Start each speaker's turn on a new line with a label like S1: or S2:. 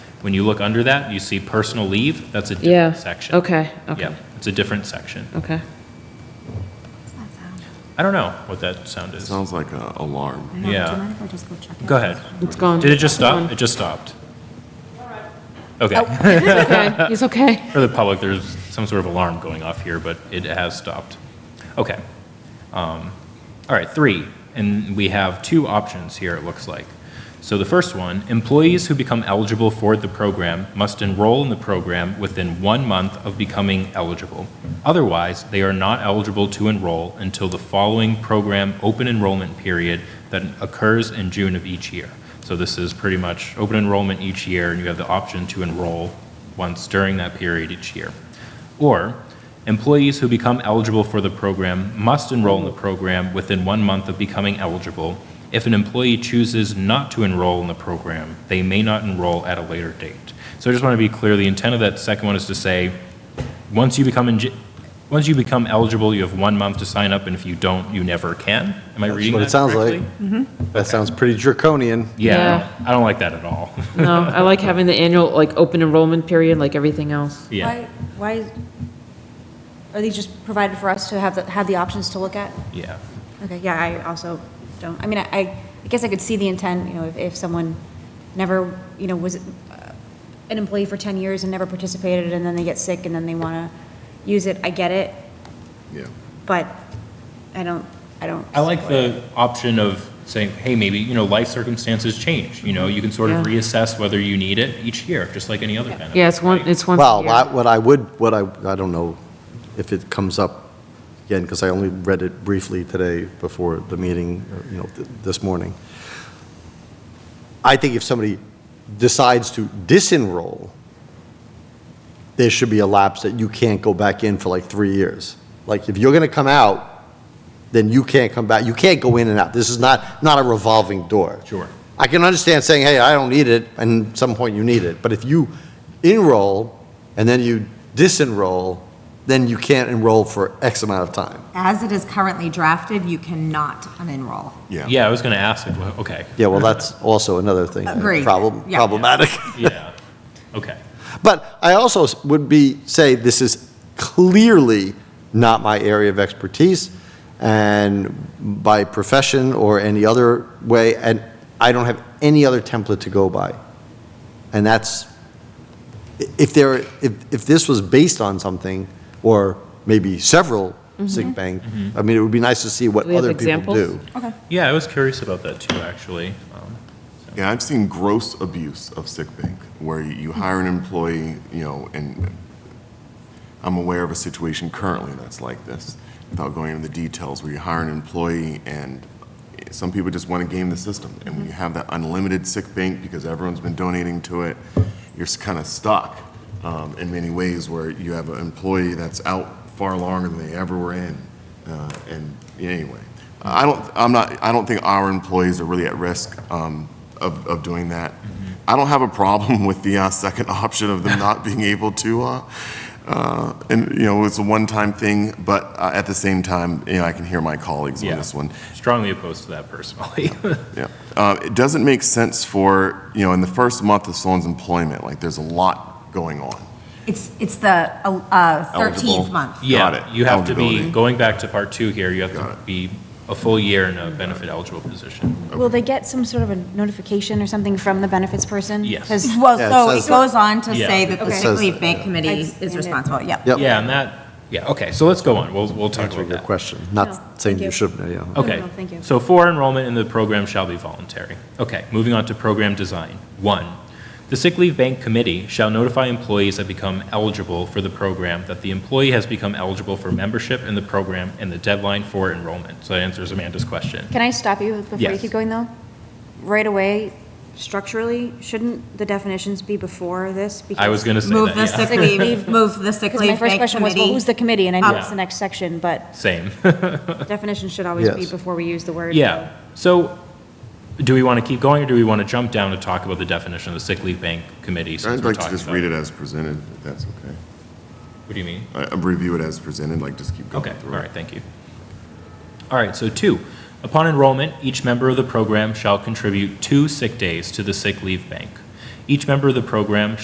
S1: When you look under that, you see personal leave, that's a
S2: Yeah.
S1: different section.
S2: Okay, okay,
S1: Yeah, it's a different section.
S2: okay.
S1: I don't know what that sound is.
S3: Sounds like an alarm.
S1: know. Do you Yeah. mind
S4: if I just go check
S1: Go ahead.
S2: It's gone.
S1: Did it just
S2: It's
S1: stop?
S2: gone.
S1: It just stopped.
S2: Oh.
S1: Okay.
S2: Okay, he's okay.
S1: For the public, there's some sort of alarm going off here, but it has stopped. Okay. Um, All right, three, and we have two options here, it looks like. So the first one, employees who become eligible for the program must enroll in the program within one month of becoming eligible. Otherwise, they are not eligible to enroll until the following program open enrollment period that occurs in June of each year. So this is pretty much open enrollment each year, and you have the option to enroll once during that period each year. Or, employees who become eligible for the program must enroll in the program within one month of becoming eligible. If an employee chooses not to enroll in the program, they may not enroll at a later date. So I just want to be clear, the intent of that second one is to say, once you become, eng- once you become eligible, you have one month to sign up, and if you don't, you never can. Am I reading
S5: what
S1: that
S5: it sounds like.
S1: correctly?
S5: That sounds pretty draconian.
S1: Yeah, I don't- I don't like that at all.
S2: No, I like having the annual, like, open enrollment period like everything else.
S1: Yeah,
S4: Why, are these just provided for us to have, the have the options to look at?
S1: yeah.
S4: Okay, yeah, I also don't, I mean, I, I guess I could see the intent, you know, if, if someone never, you know, was uh, an employee for 10 years and never participated, and then they get sick, and then they want to use it, I get it,
S3: Yeah.
S4: but I don't, I don't.
S1: I like the option of saying, hey, maybe, you know, life circumstances change, you know, you can sort of
S2: Yeah.
S1: reassess whether you need it each year, just like any other benefit.
S2: Yeah, it's one,
S1: right?
S2: it's once a
S5: Well, I-
S2: year.
S5: what I would, what I, I don't know if it comes up again, because I only read it briefly today before the meeting, or, you know, th- this morning. I think if somebody decides to disenroll, there should be a lapse that you can't go back in for like three years. Like, if you're going to come out, then you can't come back, you can't go in and out. This is not, not a revolving door.
S1: Sure.
S5: I can understand saying, hey, I don't need it, and at some point you need it. But if you enroll and then you disenroll, then you can't enroll for X amount of time.
S6: As it is currently drafted, you cannot unenroll.
S1: Yeah, I was gonna ask, like, well, okay,
S5: Yeah, well, that's also another thing. uh,
S6: Agreed.
S5: Problem-
S6: Yeah.
S5: Problematic.
S1: yeah, okay,
S5: But I also s- would be, say, this is clearly not my area of expertise, and by profession or any other way, and I don't have any other template to go by. And that's, i- if there, if, if this was based on something, or maybe several sick bank, I mean, it would be nice to see what
S2: Mm-hmm. Do we have
S5: other people
S2: examples?
S5: do.
S6: Okay.
S1: yeah, I was curious about that too, actually. Um,
S3: Yeah, I've seen gross abuse of sick bank, where you hire an employee, you know, and I'm aware of a situation currently that's like this, without going into the details, where you hire an employee and some people just want to game the system. And when you have that unlimited sick bank because everyone's been donating to it, you're kind of stuck um, in many ways where you have an employee that's out far longer than they ever were in. Uh, And anyway, I don't, I'm not, I don't think our employees are really at risk um, of, of doing that. I don't have a problem with the uh, second option of them not being able to uh, uh, And, you know, it's a one-time thing, but uh, at the same time, you know, I can hear my colleagues
S1: Yeah.
S3: on this one.
S1: Strongly opposed to that personally.
S3: Yeah. Uh, It doesn't make sense for, you know, in the first month of someone's employment, like, there's a lot going on.
S6: It's, it's the uh,
S3: Eligible.
S6: 13th month.
S3: Got it.
S1: Yeah, you have to be,
S3: Eligibility.
S1: going back to part two here, you have
S3: Got
S1: to
S3: it.
S1: be a full year in a benefit eligible position.
S4: Will they get some sort of a notification or something from the benefits person?
S1: Yes.
S4: 'Cause-
S6: Well,
S5: Yeah, it
S6: so
S5: says
S6: it
S5: that.
S6: goes on to
S1: Yeah.
S6: say that the
S4: Okay.
S6: sick
S5: says
S6: leave
S5: that,
S6: bank
S4: I
S6: committee
S4: understand
S6: is
S4: it.
S6: responsible, yep.
S5: Yep.
S1: Yeah, and that, yeah, okay, so let's go on, we'll, we'll talk
S5: Answering
S1: about
S5: your
S1: that.
S5: question,
S4: No,
S5: not saying
S4: thank
S5: you
S4: you.
S5: shouldn't, yeah.
S1: Okay.
S4: no, thank you.
S1: So for enrollment in the program shall be voluntary. Okay, moving on to program design. One, the sick leave bank committee shall notify employees that become eligible for the program that the employee has become eligible for membership in the program and the deadline for enrollment. So that answers Amanda's question.
S4: Can I stop you before you
S1: Yes.
S4: keep going, though? Right away, structurally, shouldn't the definitions be before this?
S1: I was going to say
S6: Move the
S1: that,
S6: sick leave, move the sick
S4: Because my
S6: leave
S4: first
S6: bank
S4: question was, well,
S6: committee.
S4: who's the committee? And I
S1: Um,
S4: know it's the next section, but
S1: yeah, same.
S4: definitions should always be
S5: Yes.
S4: before we use the word.
S1: Yeah, so do we want to keep going or do we want to jump down to talk about the definition of the sick leave bank committee since
S3: I'd
S1: we're
S3: like to
S1: talking
S3: just
S1: about
S3: read
S1: it?
S3: it as presented, if that's okay.
S1: What do you mean?
S3: I- I'll Review it as presented, like, just keep going
S1: Okay, all
S3: through it.
S1: right, thank you. All right, so two, upon enrollment, each member of the program shall contribute two sick days to the sick leave bank. Each member of the program